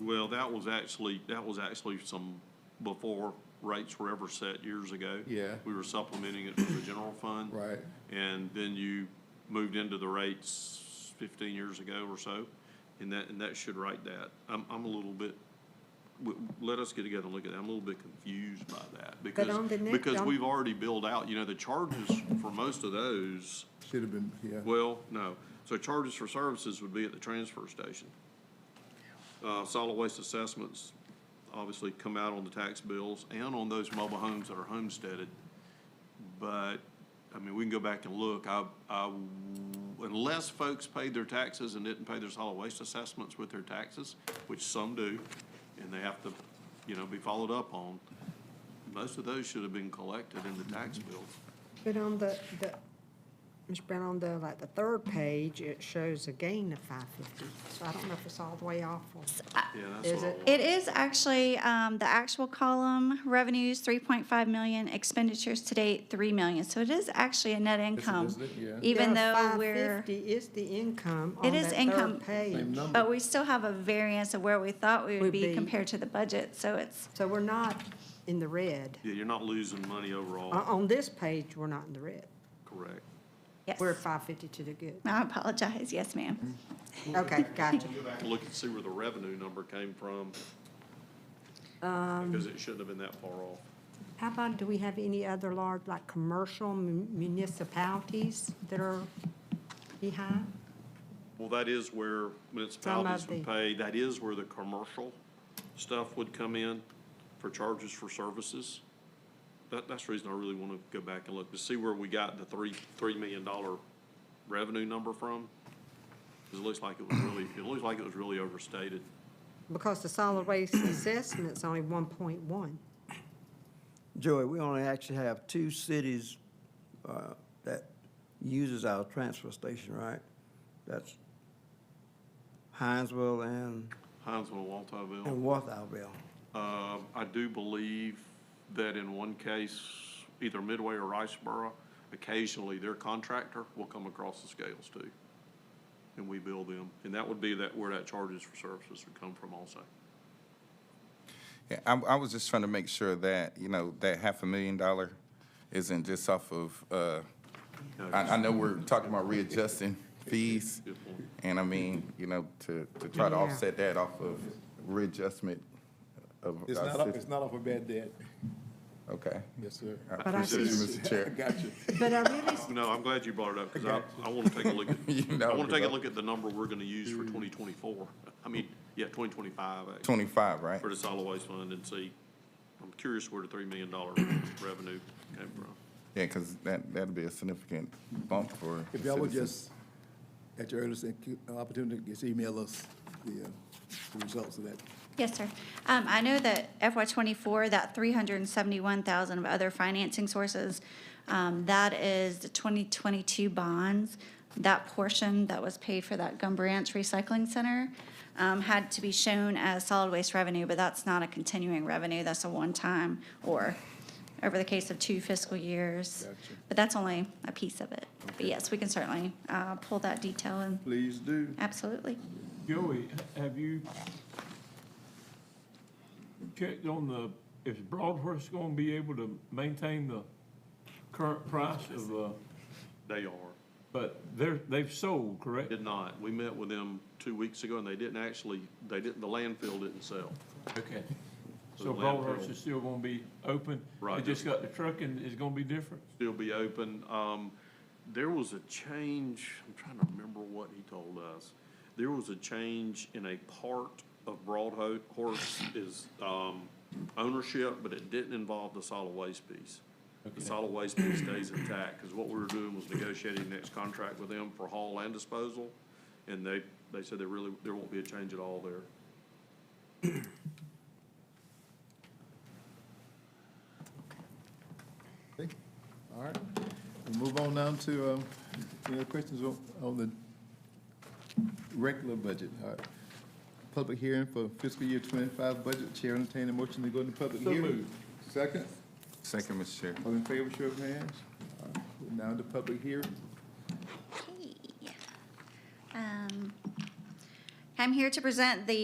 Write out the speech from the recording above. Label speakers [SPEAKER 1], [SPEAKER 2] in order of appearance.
[SPEAKER 1] Well, that was actually, that was actually some, before rates were ever set years ago.
[SPEAKER 2] Yeah.
[SPEAKER 1] We were supplementing it from the general fund.
[SPEAKER 2] Right.
[SPEAKER 1] And then you moved into the rates fifteen years ago or so, and that, and that should write that. I'm, I'm a little bit, w- let us get together and look at that. I'm a little bit confused by that. because
[SPEAKER 3] on the next-
[SPEAKER 1] Because
[SPEAKER 3] on-
[SPEAKER 1] we've already billed out, you know, the charges for most of those,
[SPEAKER 2] Should have been, yeah.
[SPEAKER 1] well, no. So charges for services would be at the transfer station. Uh, solid waste assessments obviously come out on the tax bills and on those mobile homes that are homesteaded. But, I mean, we can go back and look. I, I, unless folks paid their taxes and didn't pay their solid waste assessments with their taxes, which some do, and they have to, you know, be followed up on, most of those should have been collected in the tax bill.
[SPEAKER 3] But on the, the, Ms. Brown, on the, like, the third page, it shows a gain of five fifty, so I don't know if it's all the way off or.
[SPEAKER 1] Yeah, that's
[SPEAKER 3] Is
[SPEAKER 1] what I
[SPEAKER 3] it-
[SPEAKER 1] want.
[SPEAKER 4] It is actually, um, the actual column, revenues, three point five million, expenditures to date, three million. So it is actually a net income,
[SPEAKER 2] isn't it? Yeah.
[SPEAKER 4] even though
[SPEAKER 3] Five
[SPEAKER 4] we're,
[SPEAKER 3] fifty is the income
[SPEAKER 4] It
[SPEAKER 3] on
[SPEAKER 4] is
[SPEAKER 3] that
[SPEAKER 4] income.
[SPEAKER 3] third
[SPEAKER 2] Same
[SPEAKER 3] page.
[SPEAKER 2] number.
[SPEAKER 4] but we still have a variance of where we thought we
[SPEAKER 3] Would
[SPEAKER 4] would be
[SPEAKER 3] be.
[SPEAKER 4] compared to the budget. So it's,
[SPEAKER 3] So we're not in the red.
[SPEAKER 1] Yeah, you're not losing money
[SPEAKER 3] On,
[SPEAKER 1] overall,
[SPEAKER 3] on this page, we're not in the red.
[SPEAKER 1] correct.
[SPEAKER 4] yes,
[SPEAKER 3] We're at five fifty to the good.
[SPEAKER 4] I apologize. Yes, ma'am.
[SPEAKER 3] Okay, gotcha.
[SPEAKER 1] Go back and look and see where the revenue number came from. Because it shouldn't have been that far off.
[SPEAKER 3] How about, do we have any other large, like, commercial mun- municipalities that are behind?
[SPEAKER 1] Well, that is where municipalities would
[SPEAKER 3] the-
[SPEAKER 1] pay, that is where the commercial stuff would come in for charges for services. That, that's the reason I really want to go back and look to see where we got the three, three million dollar revenue number from. 'Cause it looks like it was really, it looks like it was really overstated.
[SPEAKER 3] Because the solid waste assessment's only one point one.
[SPEAKER 5] Joey, we only actually have two cities uh, that uses our transfer station, right? That's Hinesville and,
[SPEAKER 1] Hinesville, Waltoville.
[SPEAKER 5] and Walthallville.
[SPEAKER 1] Um, I do believe that in one case, either Midway or Riceboro, occasionally their contractor will come across the scales too. And we bill them. And that would be that, where that charges for services would come from also.
[SPEAKER 6] Yeah, I, I was just trying to make sure that, you know, that half a million dollar isn't just off of, uh, I, I know we're talking about readjusting fees.
[SPEAKER 1] Good point.
[SPEAKER 6] And I mean, you know, to, to try to
[SPEAKER 3] Yeah.
[SPEAKER 6] offset that off of readjustment of.
[SPEAKER 2] It's
[SPEAKER 6] our
[SPEAKER 2] not, off-
[SPEAKER 6] sys-
[SPEAKER 2] it's not off a bad debt.
[SPEAKER 6] Okay.
[SPEAKER 2] Yes, sir.
[SPEAKER 6] I
[SPEAKER 3] But I
[SPEAKER 6] appreciate you, Mr.
[SPEAKER 2] I
[SPEAKER 6] Chair.
[SPEAKER 2] got you.
[SPEAKER 3] But I really,
[SPEAKER 1] No, I'm glad you brought it up because I, I want to take a look at,
[SPEAKER 6] You know, Mm.
[SPEAKER 1] I want to take a
[SPEAKER 6] 'cause I-
[SPEAKER 1] look at the number we're going to use for twenty twenty-four. I mean, yeah, twenty twenty-five actually,
[SPEAKER 6] Twenty-five, right?
[SPEAKER 1] for the solid waste fund and see. I'm curious where the three million dollar revenue came from.
[SPEAKER 6] Yeah, because that, that'd be a significant bump for.
[SPEAKER 2] If
[SPEAKER 6] the
[SPEAKER 2] y'all would
[SPEAKER 6] citizens.
[SPEAKER 2] just, at your earliest incu- opportunity, just email us the, uh, the results of that.
[SPEAKER 4] Yes, sir. Um, I know that FY twenty-four, that three hundred and seventy-one thousand of other financing sources, um, that is the twenty twenty-two bonds. That portion that was paid for that Gum Branch Recycling Center, um, had to be shown as solid waste revenue, but that's not a continuing revenue. That's a one-time or over the case of two fiscal years. But that's only a piece of it. But yes, we can certainly, uh, pull that detail and,
[SPEAKER 2] Please do.
[SPEAKER 4] absolutely.
[SPEAKER 7] Joey, have you checked on the, is Broadhurst gonna be able to maintain the current price of, uh,
[SPEAKER 1] They are.
[SPEAKER 7] but they're, they've sold, correct?
[SPEAKER 1] Did not. We met with them two weeks ago, and they didn't actually, they didn't, the landfill didn't sell.
[SPEAKER 7] Okay.
[SPEAKER 1] The
[SPEAKER 7] So
[SPEAKER 1] landfill.
[SPEAKER 7] Broadhurst is still gonna be open?
[SPEAKER 1] Right.
[SPEAKER 7] It just got the trucking is gonna be different?
[SPEAKER 1] Still be open. Um, there was a change, I'm trying to remember what he told us. There was a change in a part of Broadhorse is, um, ownership, but it didn't involve the solid waste piece. The solid waste piece stays intact, because what we were doing was negotiating the next contract with them for haul and disposal, and they, they said there really, there won't be a change at all there.
[SPEAKER 2] Okay. All right. We'll move on now to, um, any other questions on, on the regular budget? All right. Public hearing for fiscal year twenty-five budget. Chair entertain a motion to go into public
[SPEAKER 7] So
[SPEAKER 2] hearing.
[SPEAKER 7] moved.
[SPEAKER 2] Second.
[SPEAKER 6] Second, Mr. Chair.
[SPEAKER 2] All in favor, show of hands. All right. We're Now into public hearing.
[SPEAKER 4] Okay. Um, I'm here to present the